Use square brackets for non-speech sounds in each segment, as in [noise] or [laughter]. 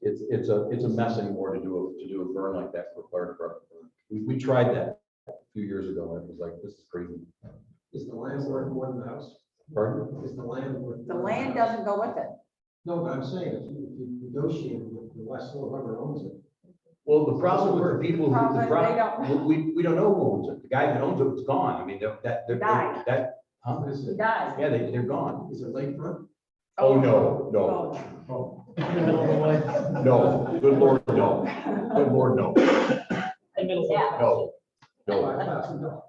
it's, it's a, it's a mess anymore to do, a to do a burn like that for fire truck. We, we tried that a few years ago, and it was like, this is crazy. Is the landlord the one in the house? Pardon? Is the landlord? The land doesn't go with it. No, but I'm saying, if you if you negotiate with the Westlaw, whoever owns it, Well, the problem with the people, who- the Problem, they don't- problem, we, we don't know who owns it. The guy that owns it was gone. I mean, that, that, Died. that, that, huh? what is [laughs] He it? dies. yeah, they, they're gone. Is it lakefront? Oh, no, no, Oh. [laughs] Oh. no, good lord, no, Oh. good lord, no, Yeah, no, no. Five thousand dollars.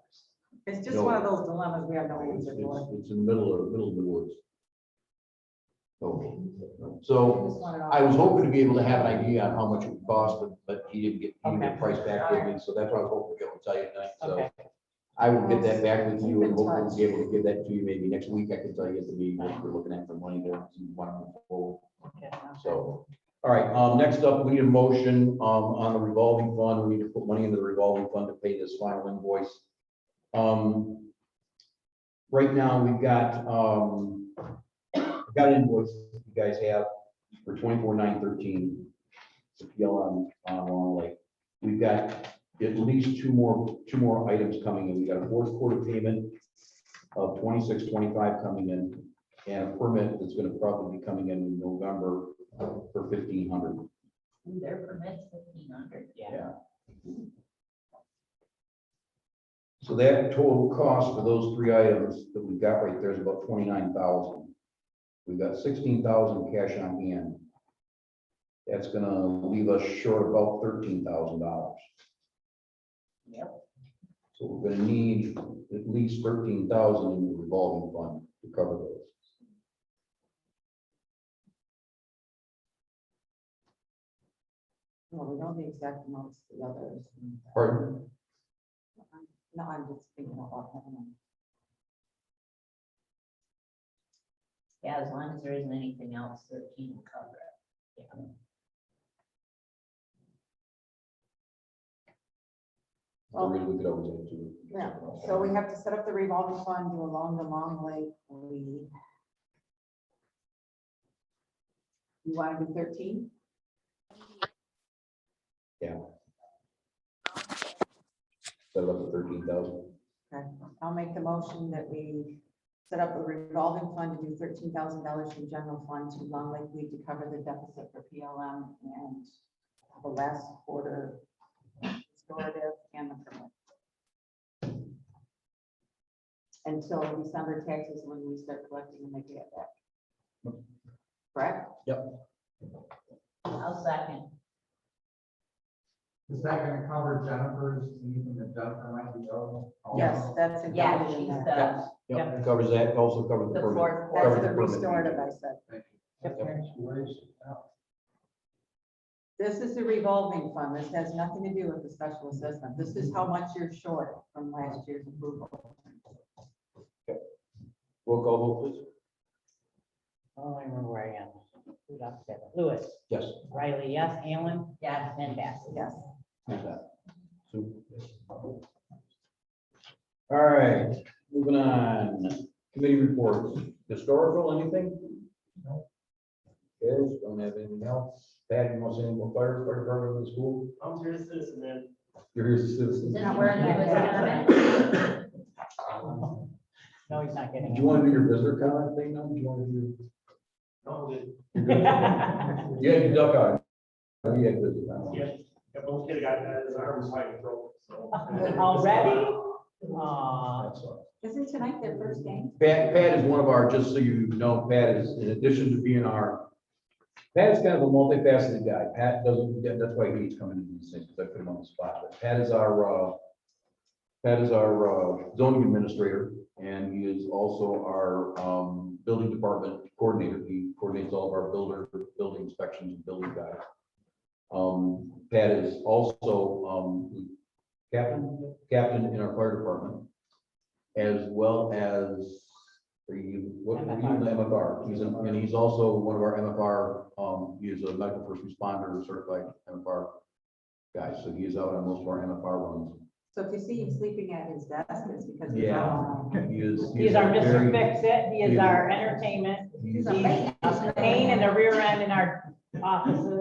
it's just one of those dilemmas we have no It's, answer for. it's- it's in the middle of, middle of the woods. So, We so just want it all- I was hoping to be able to have an idea on how much it would cost, but, but he didn't get, he didn't Okay. get price back with me, so that's what I was hoping to be able to tell you tonight, so. Okay. I will get that back with you and Keep in hopefully be able to give that to you maybe next week. I can tell you at the meeting what we're looking at for money there, if you want to move forward. So, all right, um, next up, we need a motion, um, on the revolving fund. We need to put money into the revolving fund to pay this final invoice. Um, right now, we've got, um, I've got an invoice you guys have for twenty-four nine thirteen. It's a PL on, on Long Lake. We've got at least two more, two more items coming in. We got a fourth quarter payment of twenty-six, twenty-five coming in, and a permit that's gonna probably be coming in in November for fifteen hundred. Their permit's fifteen hundred. Yeah. So that total cost for those three items that we got right there is about twenty-nine thousand. We've got sixteen thousand cash on hand. That's gonna leave us short about thirteen thousand dollars. Yep. So we're gonna need at least thirteen thousand in the revolving fund to cover those. Well, we know the exact amounts of the others. Pardon? No, I'm just thinking about them. Yeah, as long as there isn't anything else, thirteen will cover it. Yeah. The reason we could always add to it. Yeah, so we have to set up the revolving fund to along the long lake. We. You want to do thirteen? Set it up to thirteen thousand. Okay, I'll make the motion that we set up a revolving fund to do thirteen thousand dollars from general fund to Long Lake League to cover the deficit for PLM and the last quarter restorative and the permit. Until December taxes when we start collecting and making it back. Correct? I'll second. Is that gonna cover Jennifer's, anything that Jennifer might be owed? Yes, that's. Yeah, included in she's that. the, Yeah, covers that, also covers the the permit. fourth That's quarter. covered the the permit. restorative I said. This is the revolving fund. This has nothing to do with the special assessment. This is how much you're short from last year's approval. Roll call vote, please. Oh, I remember where I am. Who's up there? Lewis, Yes. Riley, yes, Allen, Yes, and Bass. Yes. How's that? Two. All right, moving on, committee reports, historical, anything? No. Yes, don't have anything else, Pat, you want to say anything about fire, fire department of the school? I'm here as a citizen, man. You're here as a citizen. Since we're in the visitor comment, [laughs] No, he's not getting Did it. you want to do your visitor comment thing now, Do you want to do? No, the- Yeah, you had your duck out. Oh, Yeah, visitor comment. yeah, that little kid got, uh, his arm was hiding throat, [laughs] so. Already? Aw, That's all. Isn't tonight their first game? Pat, Pat is one of our, just so you know, Pat is, in addition to being our, Pat is kind of a multifaceted guy. Pat doesn't, yeah, that's why he's coming in these things, because I put him on the spot. But Pat is our, uh, Pat is our uh, zoning administrator, and he is also our, um, building department coordinator. He coordinates all of our builder, building inspections, and building guys. Um, Pat is also, um, captain, captain in our fire department as well as for you, what, were you in the MFR, he's, in- and he's also one of our MFR, um, he is a medical first responder certified MFR guy, so he is out on most of our MFR runs. So if you see him sleeping at his desk, it's because. he's Yeah. out. He is. he He's our very- Mr. Fix-It, he is our entertainment, he's- he's a pain in the rear end in our offices